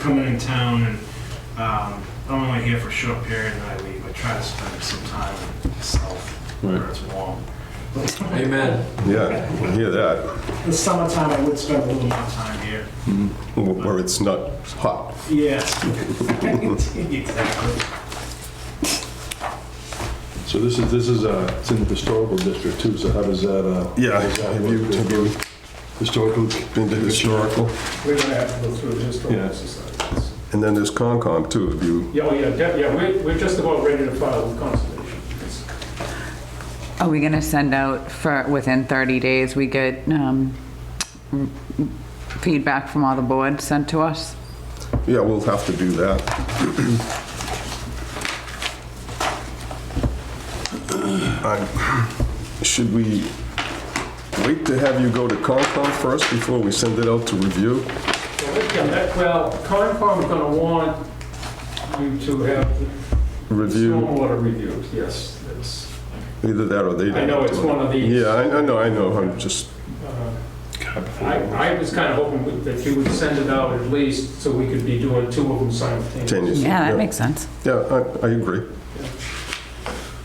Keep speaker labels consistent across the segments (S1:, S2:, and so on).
S1: coming in town and um, I'm only here for a short period and I leave. I try to spend some time in the south where
S2: Right.
S1: it's warm.
S3: Amen.
S2: Yeah, I hear that,
S1: In the summertime, I would spend a little more time here.
S2: Wh- where it's not hot.
S1: Yes. Exactly.
S4: So this is, this is, uh, it's in the historical district too, so how does that, uh?
S2: Yeah,
S4: how does that
S2: have you,
S4: work?
S2: have you
S4: Historical,
S2: been to historical?
S5: We're gonna have to go through the
S4: Yeah.
S5: historical society.
S2: And then there's Concom too, have you,
S5: Yeah, oh, yeah, yeah, yeah, we're, we're just about ready to file with conservation. It's-
S6: Are we going to send out for, within 30 days, we get um, feedback from all the boards sent to us?
S2: yeah, we'll have to do that. I- Should we wait to have you go to Concom first before we send it out to review?
S5: yeah, that- Well, Concom's gonna want you to have the
S2: Review,
S5: stormwater reviews, yes, that's,
S2: either that or they.
S5: I know it's one of these.
S2: Yeah, I I know, I know, I'm just,
S4: Uh,
S5: I, I was kind of hoping with- that you would send it out at least, so we could be doing two of them simultaneously.
S2: Tenuous.
S6: Yeah,
S2: Yeah.
S6: that makes sense.
S2: yeah, I- I agree.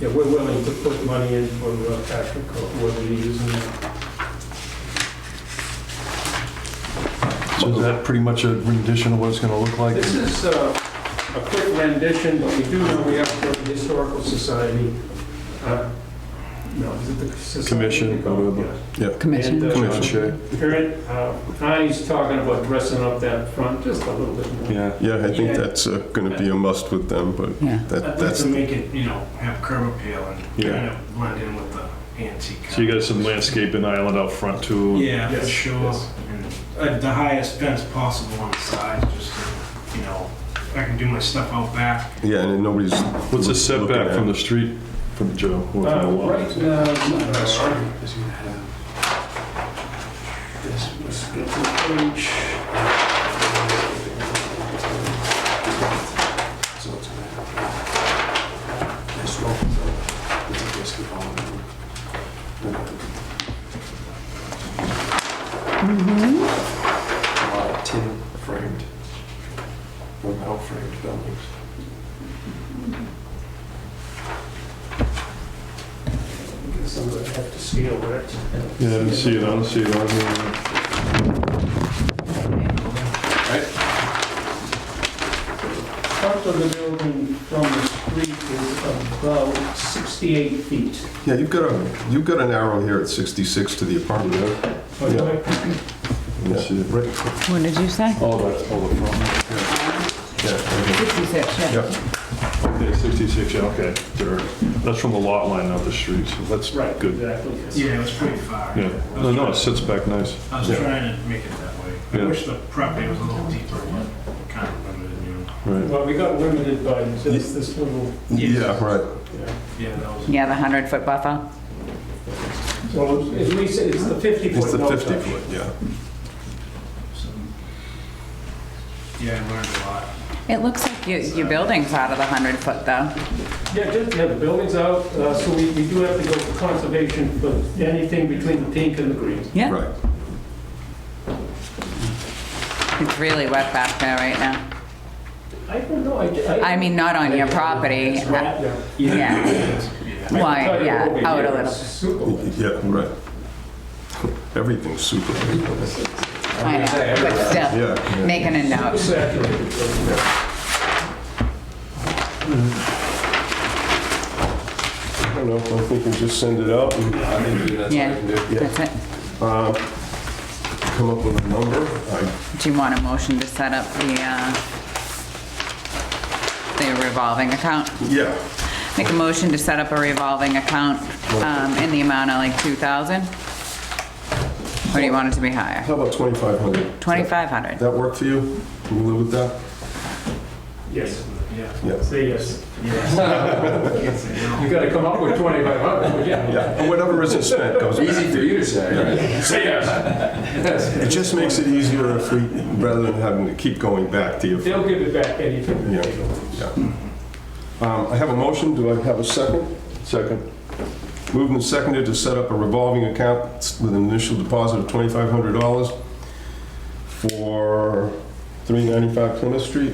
S5: Yeah, we're willing to put money in for uh, Patrick, or whether you're using that.
S4: so is that pretty much a rendition of what it's gonna look like?
S5: This is uh, a quick rendition, but we do know we have to go to the Historical Society. uh, No, is it the Society?
S4: Commission, whatever.
S5: Yeah.
S6: Commission?
S5: And, uh,
S4: John Shea?
S5: Current, uh, Connie's talking about dressing up that front just a little bit more.
S4: Yeah,
S2: Yeah, I think
S1: Yeah.
S2: that's going to be a must with them, but
S6: Yeah.
S2: that,
S1: I'd like
S2: that's,
S1: to make it, you know, have curb appeal and
S4: Yeah.
S1: kind of blend in with the antique.
S4: so you got some landscaping island out front too?
S1: Yeah, for
S5: Yes,
S1: sure.
S5: yes.
S1: And uh, the highest fence possible on the side, just to, you know, I can do my stuff out back.
S2: yeah, and then nobody's.
S4: What's the
S2: looking
S4: setback
S2: at
S4: from the
S2: it.
S4: street, Ah, from Joe? or from the
S5: Uh,
S4: lot?
S5: Right now, uh,
S7: is you have this was good for each. So it's gonna have this one, this is just the bottom. A lot of tin framed, or metal framed buildings.
S5: Some of it have to scale, right?
S4: Yeah, I didn't see it, I don't see it on here.
S5: Front of the building from the street is about 68 feet.
S2: Yeah, you've got a, you've got an arrow here at 66 to the apartment. huh?
S5: Okay.
S2: Yeah.
S4: Let's see it.
S2: Right,
S6: What did you say?
S4: All that, all the front.
S2: yeah,
S6: 56, yeah.
S2: yeah.
S4: Okay, 66, yeah, okay. There- That's from the lot line, not the street, so that's
S5: Right,
S4: good.
S5: exactly. yes.
S1: Yeah, it was pretty far.
S4: Yeah,
S1: I
S4: no, no,
S1: was trying-
S4: it sits back nice.
S1: I was
S4: Yeah.
S1: trying to make it that way. I
S4: Yeah.
S1: wish the property was a little deeper, but kind of limited, you know.
S4: Right.
S5: Well, we got limited by just this little,
S2: Yeah, right.
S1: Yeah, that was.
S6: Yeah, the 100-foot buffer?
S5: well, at least it's the 50 foot.
S2: It's the
S5: no
S2: 50
S5: touch.
S2: foot, yeah.
S1: some- Yeah, I learned a lot.
S6: It looks like you- your building's out of the 100-foot, though.
S5: Yeah, just, yeah, the building's out, uh, so we, we do have to go to conservation for anything between the pink and the green.
S6: Yeah,
S2: Right.
S6: it's really wet back there right now.
S5: I don't know, I.
S6: I mean, not on your property. uh,
S5: It's right there.
S6: Yeah,
S1: Yeah.
S5: I can
S6: Why,
S5: tell you
S6: yeah,
S5: over
S6: out a
S5: here,
S6: little
S5: it's
S6: bit.
S5: Super wet.
S2: Yeah, right. Everything's super,
S6: I know, but still,
S2: yeah.
S6: making a note.
S5: Saturated over there.
S2: I don't know, I think we just send it out and
S7: I think that's
S6: Yeah, that's it.
S2: come up with a number. I-
S6: Do you want a motion to set up the, uh, the revolving account?
S2: Yeah,
S6: Make a motion to set up a revolving account um, in the amount of like 2,000? Or do you want it to be higher?
S2: how about 2,500?
S6: 2,500?
S2: That work for you? Can you live with that?
S5: Yes,
S1: Yeah.
S2: Yeah.
S5: say yes.
S1: Yes, you know.
S5: You gotta come up with 2,500, yeah.
S2: Yeah, whatever isn't spent goes back.
S7: Easy for you to say, right?
S5: Say yes.
S2: It just makes it easier if we, rather than having to keep going back to you.
S5: They'll give it back anything.
S2: Yeah, yeah. Um, I have a motion, do I have a second?
S4: Second.
S2: Moved and seconded to set up a revolving account with an initial deposit of $2,500 for 395 Plymouth Street.